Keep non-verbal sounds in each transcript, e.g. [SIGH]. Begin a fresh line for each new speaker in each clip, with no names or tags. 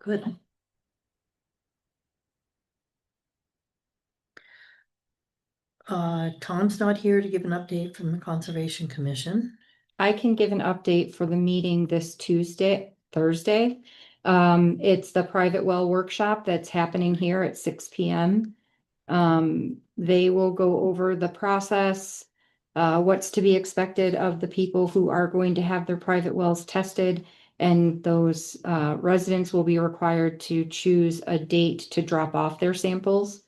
Good. Uh, Tom's not here to give an update from the Conservation Commission.
I can give an update for the meeting this Tuesday, Thursday. Um, it's the private well workshop that's happening here at six P M. Um, they will go over the process, uh, what's to be expected of the people who are going to have their private wells tested. And those, uh, residents will be required to choose a date to drop off their samples.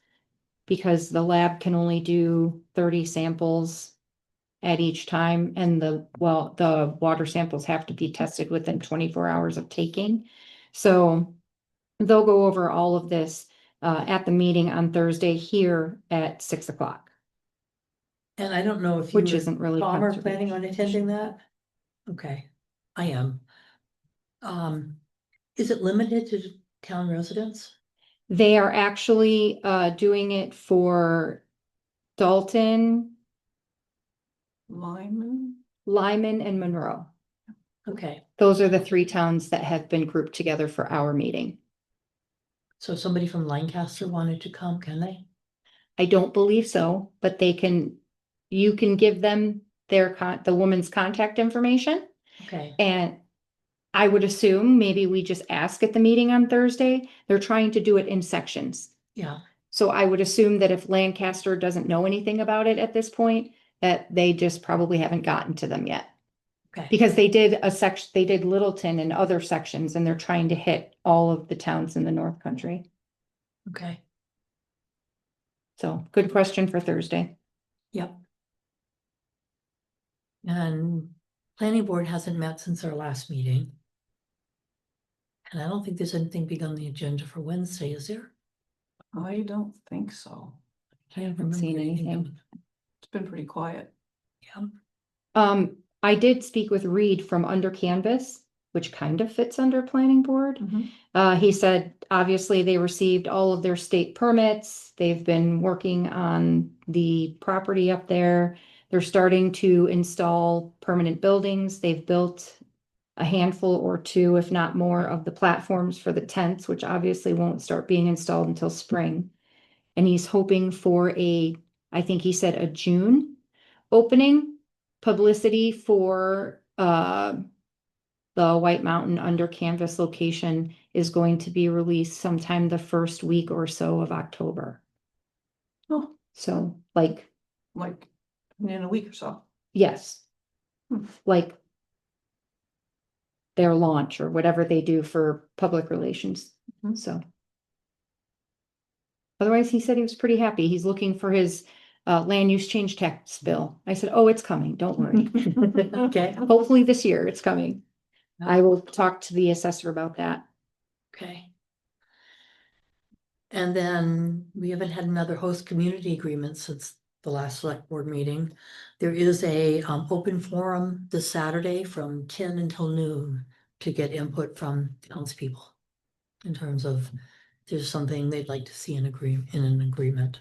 Because the lab can only do thirty samples at each time and the, well, the water samples have to be tested within twenty-four hours of taking. So they'll go over all of this uh at the meeting on Thursday here at six o'clock,
And I don't know if you
which
were-
isn't really.
Tom are
controversial.
planning on attending that? Okay, I am. Um, is it limited to town residents?
They are actually uh doing it for Dalton,
Lyman?
Lyman and Monroe.
Okay,
Those are the three towns that have been grouped together for our meeting.
so if somebody from Lancaster wanted to come, can they?
I don't believe so, but they can, you can give them their con, the woman's contact information.
Okay,
And I would assume maybe we just ask at the meeting on Thursday. They're trying to do it in sections.
yeah,
So I would assume that if Lancaster doesn't know anything about it at this point, that they just probably haven't gotten to them yet.
okay,
Because they did a section, they did Littleton and other sections and they're trying to hit all of the towns in the North Country.
okay,
So good question for Thursday.
yep. And planning board hasn't met since our last meeting. And I don't think there's anything big on the agenda for Wednesday, is there?
I don't think so.
I haven't
seen anything.
It's been pretty quiet.
Yeah,
Um, I did speak with Reed from Under Canvas, which kind of fits under planning board.
Mm-hmm.
Uh, he said, obviously, they received all of their state permits. They've been working on the property up there. They're starting to install permanent buildings. They've built a handful or two, if not more, of the platforms for the tents, which obviously won't start being installed until spring. And he's hoping for a, I think he said a June opening publicity for, uh, the White Mountain Under Canvas location is going to be released sometime the first week or so of October.
Oh.
So like,
Like in a week or so.
yes.
Hmm.
Like their launch or whatever they do for public relations,
Mhm.
so. Otherwise, he said he was pretty happy. He's looking for his uh land use change tax bill. I said, oh, it's coming, don't worry.
[LAUGHS]
okay,
Hopefully this year it's coming. I will talk to the assessor about that.
okay. And then we haven't had another host community agreement since the last select board meeting. There is a um open forum this Saturday from ten until noon to get input from townspeople. In terms of if there's something they'd like to see in agree in an agreement.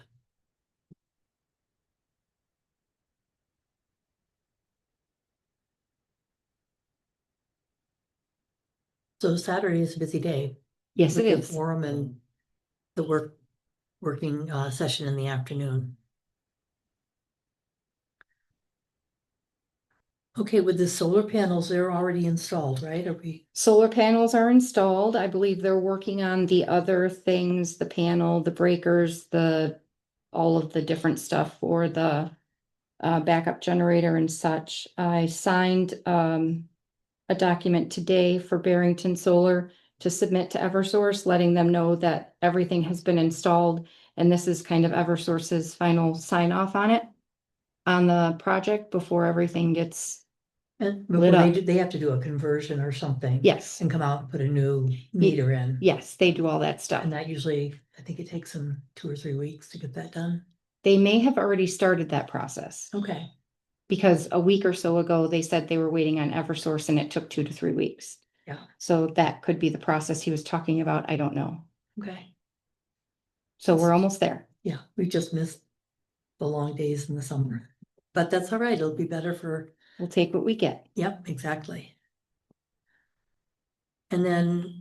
So Saturday is a busy day.
Yes, it
with the
is.
Forum and the work, working uh session in the afternoon. Okay, with the solar panels, they're already installed, right? Are we,
Solar panels are installed. I believe they're working on the other things, the panel, the breakers, the, all of the different stuff for the uh, backup generator and such. I signed um, a document today for Barrington Solar to submit to Eversource, letting them know that everything has been installed. And this is kind of Eversource's final sign off on it, on the project before everything gets,
and before
Lit
they
up.
do- they have to do a conversion or something.
yes,
And come out and put a new meter in.
yes, they do all that stuff.
And that usually, I think it takes them two or three weeks to get that done.
They may have already started that process
Okay,
because a week or so ago, they said they were waiting on Eversource and it took two to three weeks.
Yeah.
So that could be the process he was talking about. I don't know.
okay.
So we're almost there.
Yeah, we just missed the long days in the summer, but that's all right. It'll be better for
We'll take what we get.
Yep, exactly. And then